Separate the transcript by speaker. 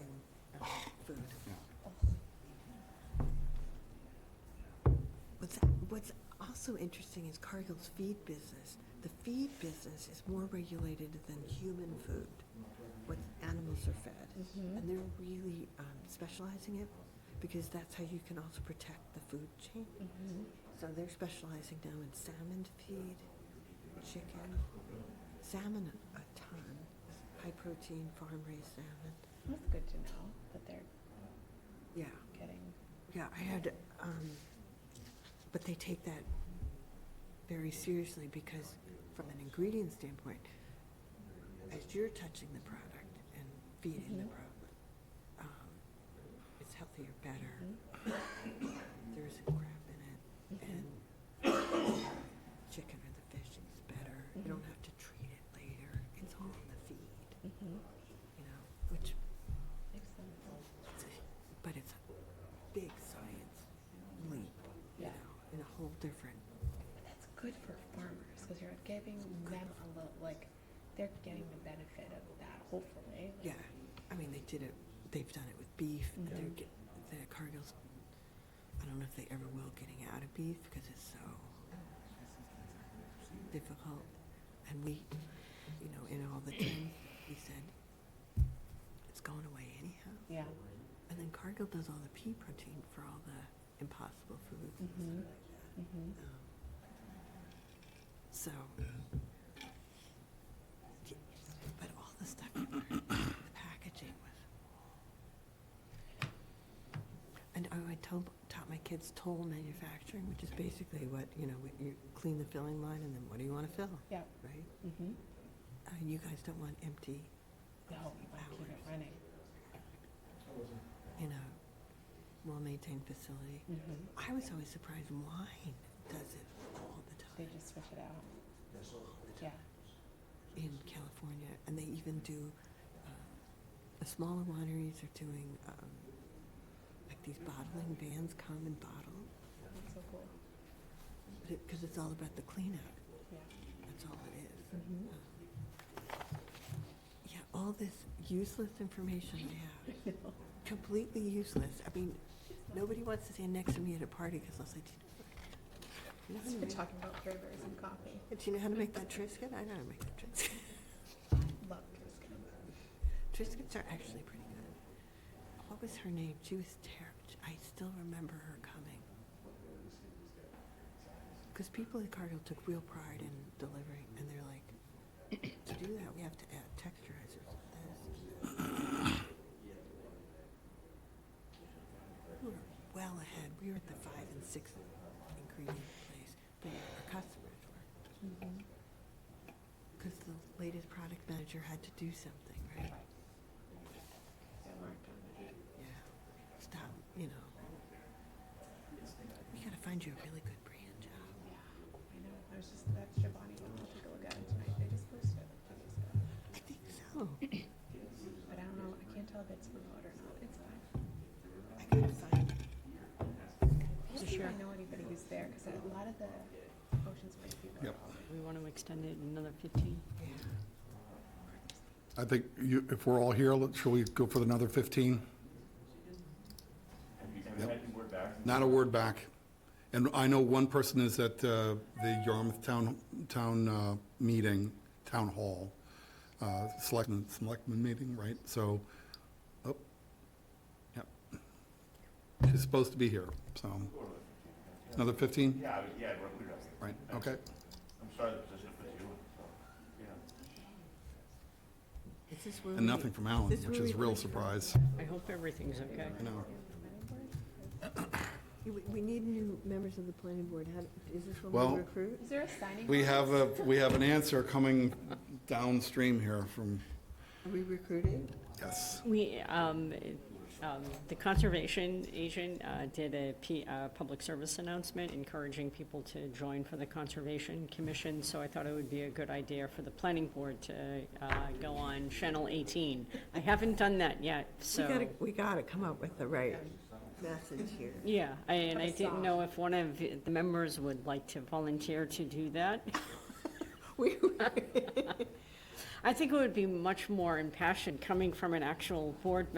Speaker 1: Oh.
Speaker 2: Mm-hmm.
Speaker 1: also interesting is Cargill's feed business. The feed business is more regulated than human food, what animals are fed.
Speaker 2: Mm-hmm.
Speaker 1: And they're really um, specializing it because that's how you can also protect the food chain. So they're specializing now in salmon feed, chicken, salmon a ton, high protein farm raised salmon.
Speaker 2: That's good to know that they're
Speaker 1: Yeah,
Speaker 2: getting.
Speaker 1: yeah, I had, um, but they take that very seriously because from an ingredient standpoint, as you're touching the product and feeding the
Speaker 2: Mhm.
Speaker 1: product, um, it's healthier, better.
Speaker 2: mm-hmm,
Speaker 1: There isn't crap in it. and chicken or the fish is better. You don't have to treat it later. It's all in the feed,
Speaker 2: Mm-hmm.
Speaker 1: you know, which,
Speaker 2: Makes sense.
Speaker 1: it's a- but it's a big science leap, you
Speaker 2: Yeah.
Speaker 1: know, in a whole different,
Speaker 2: And that's good for farmers because you're giving them a little, like, they're getting the benefit of that, hopefully. like-
Speaker 1: yeah. I mean, they did it, they've done it with beef and they're
Speaker 2: Mhm.
Speaker 1: get, the Cargill's, I don't know if they ever will getting out of beef because it's so difficult. And we, you know, in all the time, we said, it's going away anyhow.
Speaker 2: Yeah.
Speaker 1: And then Cargill does all the pea protein for all the impossible foods. and stuff
Speaker 2: Mhm.
Speaker 1: like that.
Speaker 2: Mm-hmm.
Speaker 1: Um, so, y- but all the stuff you learn, the packaging was. And oh, I told, taught my kids toll manufacturing, which is basically what you know, what you clean the filling line, and then what do you want to fill,
Speaker 2: Yeah.
Speaker 1: right?
Speaker 2: Mm-hmm.
Speaker 1: Uh, you guys don't want empty,
Speaker 2: No, you want to keep it
Speaker 1: Hours.
Speaker 2: running.
Speaker 1: you know, well-maintained facility.
Speaker 2: Mm-hmm.
Speaker 1: I was always surprised wine does it all the
Speaker 2: They
Speaker 1: time
Speaker 2: just switch it out. Yeah.
Speaker 1: in California, and they even do. Uh, the smaller wineries are doing um, like these bottling vans come and bottle
Speaker 2: That's so cool.
Speaker 1: because it's all about the cleanup.
Speaker 2: Yeah.
Speaker 1: That's all it is. Um,
Speaker 2: Mm-hmm.
Speaker 1: Yeah, all this useless information I have, completely useless. I mean, nobody wants to stand next to me at a party because I'll say, "Do you know how to
Speaker 2: We're
Speaker 1: make-
Speaker 2: talking about flavors and coffee.
Speaker 1: do you know how to make that Triscuit? I know how to make that Triscuit."
Speaker 2: Love Triscuit.
Speaker 1: Triscuits are actually pretty good. What was her name? She was terrible. I still remember her coming. Because people at Cargill took real pride in delivering, and they're like, to do that, we have to add texturizers. to this." We were well ahead. We were at the five and six ingredient place, but our customers were.
Speaker 2: Mm-hmm.
Speaker 1: Because the latest product manager had to do something, right?
Speaker 2: Right. They worked on it.
Speaker 1: Yeah. Stop, you know. We gotta find you a really good brand job.
Speaker 2: Yeah, I know. I was just, that's Giovanni. I'll take a look at it tonight. They just posted it a few days ago.
Speaker 1: I think so.
Speaker 2: But I don't know, I can't tell if it's remote or not. It's fine.
Speaker 1: I gotta find.
Speaker 2: I don't think I know anybody who's there because a lot of the Ocean Spray people. are
Speaker 3: Yep.
Speaker 2: all
Speaker 4: We want to extend it another 15.
Speaker 1: Yeah.
Speaker 3: I think you, if we're all here, let- shall we go for another 15? Yep. Not a word back. And I know one person is at uh, the Yarmouth Town, Town uh, Meeting, Town Hall, uh, Selectmen, Selectmen Meeting, right? So, oh, yep. She's supposed to be here, so. Another 15?
Speaker 5: Yeah, I would- yeah, we're, we're,
Speaker 3: Right, okay.
Speaker 5: I'm sorry the position puts you in, so, yeah.
Speaker 1: Is this where
Speaker 3: And
Speaker 1: we-
Speaker 3: nothing from Alan,
Speaker 1: this
Speaker 3: which
Speaker 1: where
Speaker 3: is
Speaker 1: we
Speaker 3: real
Speaker 1: put-
Speaker 3: surprise.
Speaker 4: I hope everything's okay.
Speaker 3: I know.
Speaker 1: You- We, we need new members of the planning board. How, is this where
Speaker 3: Well-
Speaker 1: we recruit?
Speaker 2: Is there a signing?
Speaker 3: We have
Speaker 2: bonus?
Speaker 3: a, we have an answer coming downstream here from,
Speaker 1: Are we recruiting?
Speaker 3: yes.
Speaker 4: We, um, um, the conservation agent uh, did a P- uh, public service announcement encouraging people to join for the Conservation Commission, so I thought it would be a good idea for the planning board to uh, go on Channel 18. I haven't done that yet, so.
Speaker 1: We gotta, we gotta come up with the right message here.
Speaker 4: Yeah, I- and I
Speaker 2: Put a
Speaker 4: didn't
Speaker 2: song.
Speaker 4: know if one of the members would like to volunteer to do that.
Speaker 1: We,
Speaker 4: I think it would be much more impassioned coming from an actual board